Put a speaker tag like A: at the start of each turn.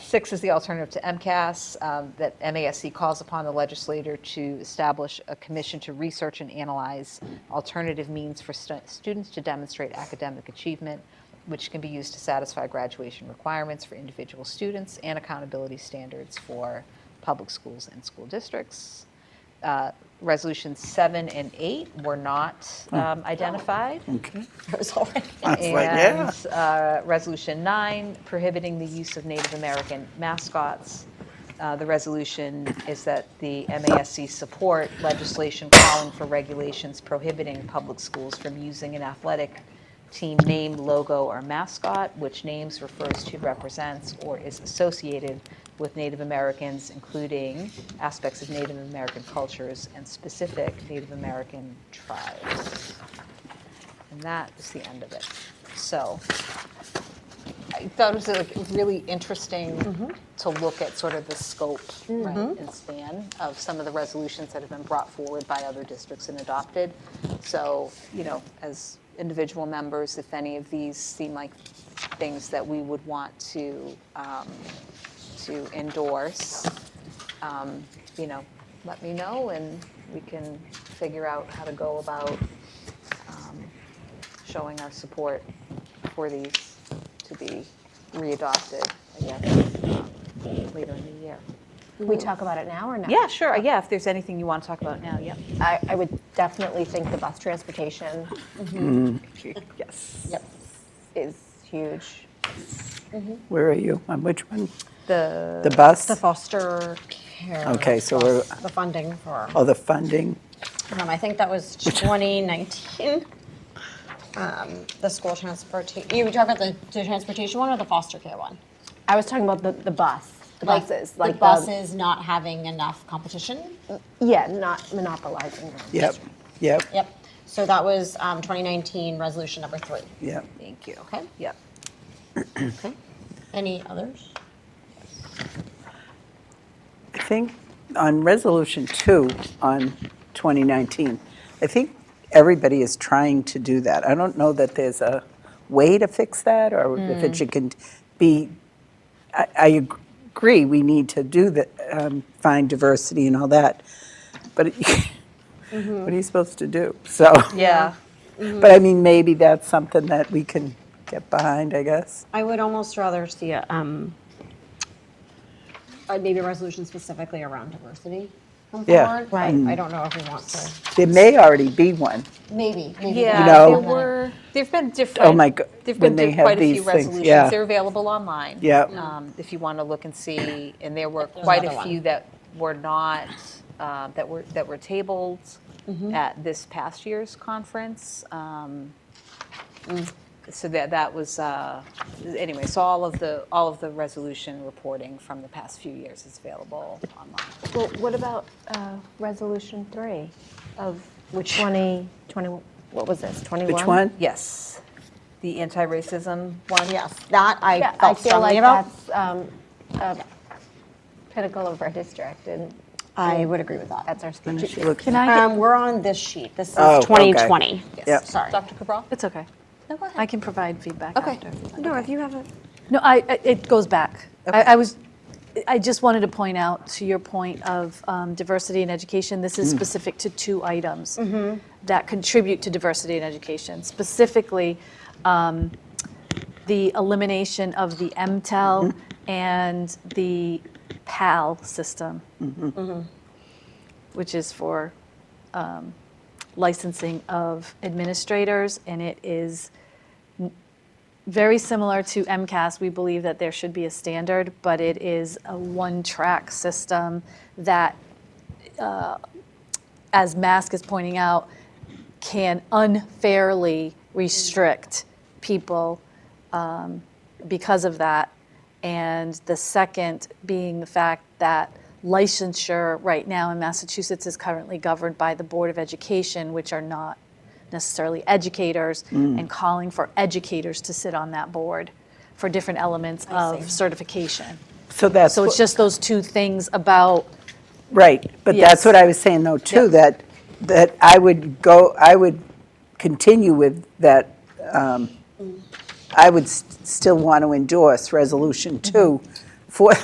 A: Six is the alternative to MCAS, um, that MASC calls upon the legislator to establish a commission to research and analyze alternative means for stu- students to demonstrate academic achievement, which can be used to satisfy graduation requirements for individual students and accountability standards for public schools and school districts. Uh, Resolutions seven and eight were not um, identified.
B: Okay.
C: I was already.
B: That's like, yeah.
A: And uh, Resolution 9, prohibiting the use of Native American mascots. Uh, The resolution is that the MASC support legislation calling for regulations prohibiting public schools from using an athletic team name, logo, or mascot, which names refers to, represents, or is associated with Native Americans, including aspects of Native American cultures and specific Native American tribes. And that is the end of it. So I thought it was like really interesting to look at sort of the scope right, and span of some of the resolutions that have been brought forward by other districts and adopted. So, you know, as individual members, if any of these seem like things that we would want to um, to endorse, um, you know, let me know and we can figure out how to go about showing our support for these to be readopted, I guess, um, later in the year.
C: We talk about it now or not?
A: Yeah, sure, yeah, if there's anything you want to talk about now, yeah.
C: I, I would definitely think the bus transportation
A: Yes.
C: Yep. is huge.
B: Where are you? On which one?
A: The,
B: The bus?
D: The foster care.
B: Okay, so
D: plus
B: we're-
D: The funding for,
B: Oh, the funding?
D: um, I think that was 2019. Um, The school transportation, you were talking about the the transportation one or the foster care one?
C: I was talking about the, the bus, the
D: Like,
C: buses, like
D: The buses not having enough competition?
C: Yeah, not monopolizing them.
B: Yep, yep,
D: Yep. So that was um, 2019, resolution number three.
B: yep.
A: thank you.
D: Okay.
A: Yep.
D: Any others?
B: I think on resolution two on 2019, I think everybody is trying to do that. I don't know that there's a way to fix that or if it should con- be, I, I ag- agree, we need to do that, um, find diversity and all that. But it- what are you supposed to do? So,
A: Yeah.
B: but I mean, maybe that's something that we can get behind, I guess.
D: I would almost rather see a, um, uh, maybe a resolution specifically around diversity come
B: Yeah.
D: forward. Right. I don't know if we want to.
B: There may already be one.
D: Maybe, maybe.
A: Yeah,
B: know- Oh
A: there were, there've been different.
B: my go-
A: There've
B: when
A: been
B: they
A: diff-
B: have
A: quite a few
B: these things, yeah.
A: resolutions. They're available online.
B: Yeah.
A: um, If you want to look and see, and there were quite
D: another
A: a
D: one.
A: few that were not, uh, that were, that were tabled
B: Mm-hmm.
A: at this past year's conference. Um,
B: Mm.
A: So that, that was, uh, anyway, so all of the, all of the resolution reporting from the past few years is available online.
C: Well, what about uh, resolution three of
A: Which-
C: 20, 20, what was this, 21?
B: Which one?
A: Yes, the anti-racism one.
D: Yes, that I
C: Yeah, I
D: felt
C: feel like
D: strongly about.
C: that's um, a pinnacle of our district, and
D: I would agree with that.
C: that's our speech.
D: Can I? Um, we're on this sheet. This is
B: Oh, okay.
D: 2020.
B: Yep.
D: Sorry.
A: Dr. Cabral?
E: It's okay.
A: No, go ahead.
E: I can provide feedback
A: Okay.
E: after.
C: No, if you have a,
E: No, I, I- it goes back. I I was, I just wanted to point out, to your point of um, diversity in education, this is specific to two items
C: Mm-hmm.
E: that contribute to diversity in education, specifically um, the elimination of the MTEL and the PAL system,
C: Mm-hmm.
E: which is for um, licensing of administrators, and it is very similar to MCAS, we believe that there should be a standard, but it is a one-track system that, uh, as Mask is pointing out, can unfairly restrict people um, because of that. And the second being the fact that licensure right now in Massachusetts is currently governed by the Board of Education, which are not necessarily educators,
B: Mm.
E: and calling for educators to sit on that board for different elements of certification.
B: So that's.
E: So
B: what-
E: it's just those two things about,
B: Right, but that's
E: Yes.
B: what I was saying though, too, that, that I would go, I would continue with that, um, I would s- still want to endorse Resolution 2 for